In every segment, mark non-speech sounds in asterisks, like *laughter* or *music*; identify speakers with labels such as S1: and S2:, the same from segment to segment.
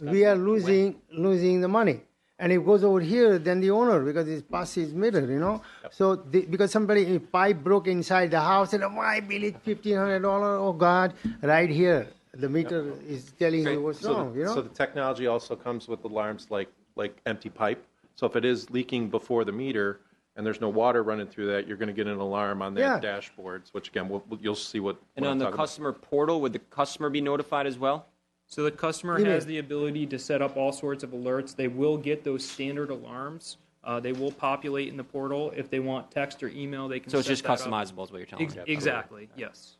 S1: we are losing, losing the money. And it goes over here, then the owner, because it's past his meter, you know? So, the- because somebody, a pipe broke inside the house, and why bill it fifteen hundred dollar, oh God, right here, the meter is telling
S2: Okay,
S1: you what's
S2: so the-
S1: wrong, you
S2: So
S1: know?
S2: the technology also comes with alarms like, like empty pipe. So if it is leaking before the meter and there's no water running through that, you're going to get an alarm on their
S1: Yeah.
S2: dashboards, which again, we'll- we'll- you'll see what.
S3: And
S2: what I'm
S3: on the
S2: talking about.
S3: customer portal, would the customer be notified as well?
S4: So the customer
S1: Email.
S4: has the ability to set up all sorts of alerts. They will get those standard alarms. Uh, they will populate in the portal. If they want text or email, they can.
S3: So it's
S4: set
S3: just
S4: that up.
S3: customizable is what you're telling
S4: Ex-
S3: me?
S4: exactly. Yes.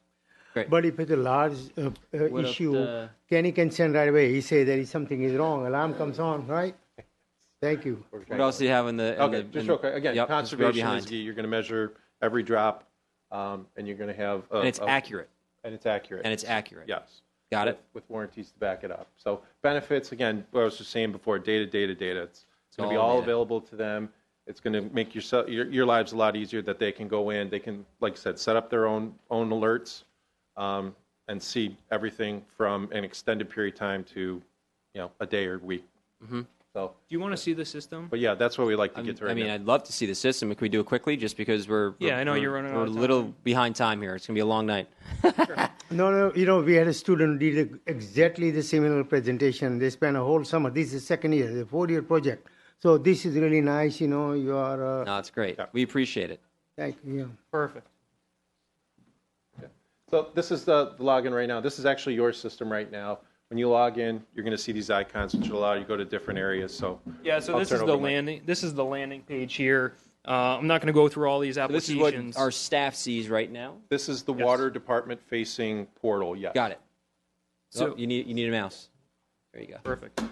S1: But if it's a large uh, uh,
S3: What if
S1: issue,
S3: the-
S1: Kenny can send right away, he say there is something is wrong, alarm comes on,
S2: *laughs*
S1: right? Thank you.
S3: What else do you have in the? in
S2: Okay,
S3: the-
S2: just
S3: in-
S2: real quick, again,
S3: Yep, it's way
S2: conservation
S3: behind.
S2: is, key. you're going to measure every drop um, and you're going to have. a-
S3: And it's
S2: a-
S3: accurate,
S2: And it's accurate.
S3: and it's accurate.
S2: Yes.
S3: Got it?
S2: With warranties to back it up. So benefits, again, what I was just saying before, data, data, data. It's going to be
S3: all
S2: all
S3: data.
S2: available to them. It's going to make your, se- your, your lives a lot easier that they can go in, they can, like I said, set up their own, own alerts um, and see everything from an extended period of time to, you know, a day or week. So,
S4: Do you want to see the system?
S2: but yeah, that's what we like to get to right
S3: Mm-hmm. I mean,
S2: now.
S3: I'd love to see the system. Can we do it quickly? Just because we're,
S4: Yeah, I know
S3: we're-
S4: you're running out
S3: We're
S4: of
S3: a
S4: time.
S3: little behind time here. It's gonna be a long night.
S1: No, no, you know, we had a student did exactly the similar presentation. They spent a whole summer. This is second year, the four-year project. So this is really nice, you know, you are, uh,
S3: No, it's great.
S2: Yeah.
S3: We appreciate it.
S1: thank you.
S4: Perfect.
S2: So this is the, the login right now. This is actually your system right now. When you log in, you're going to see these icons, which will allow you to go to different areas. So
S4: Yeah. So
S2: I'll
S4: this
S2: turn
S4: is
S2: it
S4: the
S2: over to Mike.
S4: landing. This is the landing page here. Uh, I'm not going to go through all these
S3: This is
S4: applications.
S3: what our staff sees right now.
S2: This is the
S4: Yes.
S2: water department facing portal. Yes.
S3: Got it. So
S4: So-
S3: you need you need a mouse. There you go.
S4: Perfect.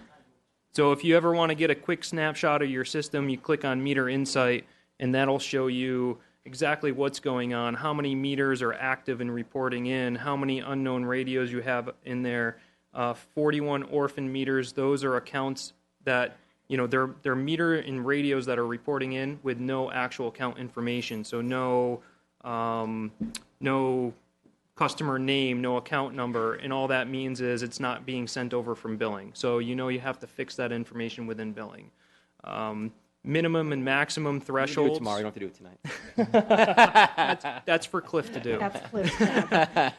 S4: So if you ever want to get a quick snapshot of your system, you click on Meter Insight, and that'll show you exactly what's going on, how many meters are active and reporting in, how many unknown radios you have in there. Uh, 41 orphan meters; those are accounts that you know they're they're meter and radios that are reporting in with no actual account information, so no um, no customer name, no account number, and all that means is it's not being sent over from billing. So you know you have to fix that information within billing. Um, minimum and maximum
S3: You can do it
S4: thresholds.
S3: tomorrow. You don't have to do it tonight.
S4: That's for Cliff to do.
S5: That's Cliff's job.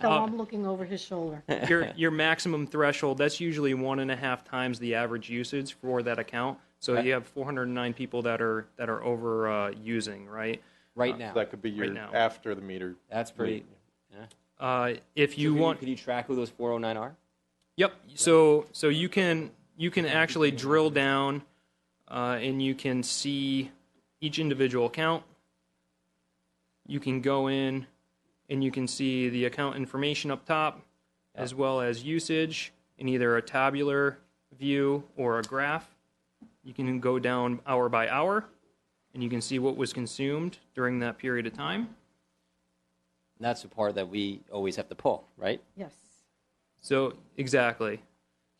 S5: So I'm looking over his shoulder.
S4: your your maximum threshold that's usually one and a half times the average usage for that account. So you have 409 people that are that are over uh, using right.
S3: Right now.
S2: That could be your
S4: Right now.
S2: after the meter.
S3: That's pretty. Yeah.
S4: Uh, if you
S3: Could
S4: want,
S3: Could you track who those 409 are?
S4: Yep. So so you can you can actually drill down, uh, and you can see each individual account. You can go in, and you can see the account information up top, as well as usage in either a tabular view or a graph. You can go down hour by hour, and you can see what was consumed during that period of time.
S3: And that's the part that we always have to pull, right?
S5: Yes.
S4: So exactly.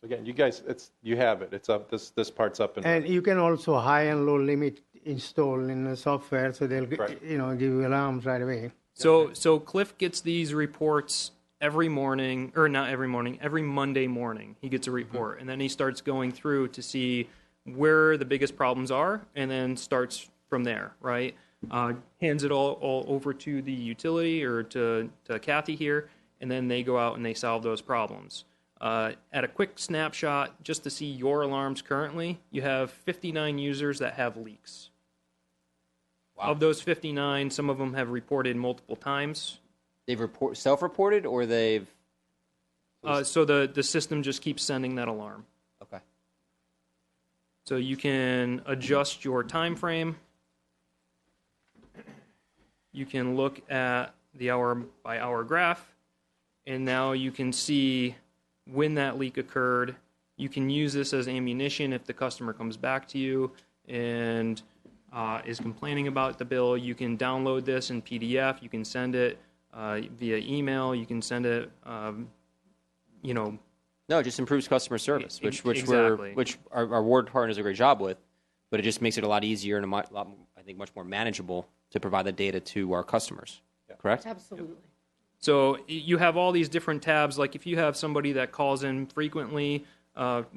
S2: Again, you guys, it's you have it. It's up. This this part's up and,
S1: And you can also high and low limit install in the software, so they'll, g-
S2: Right.
S1: you know, give you alarms right away.
S4: So so Cliff gets these reports every morning, or not every morning, every Monday morning. He gets a report, and then he starts going through to see where the biggest problems are, and then starts from there. Right, uh, hands it all all over to the utility or to to Kathy here, and then they go out and they solve those problems. Uh, at a quick snapshot, just to see your alarms currently, you have 59 users that have leaks. Of those 59, some of them have reported multiple times.
S3: They've report, self-reported or they've
S4: Uh, so the, the system just keeps sending that alarm.
S3: okay.
S4: So you can adjust your time frame. You can look at the hour by hour graph, and now you can see when that leak occurred. You can use this as ammunition if the customer comes back to you and uh, is complaining about the bill. You can download this in PDF. You can send it uh, via email. You can send it, um, you know,
S3: No, it just improves customer service,
S4: E-
S3: which which
S4: exactly.
S3: we're which our, our ward partner does a great job with, but it just makes it a lot easier and a mo- lot I think much more manageable to provide the data to our customers. Correct.
S5: Absolutely.
S4: So y- you have all these different tabs. Like if you have somebody that calls in frequently, uh,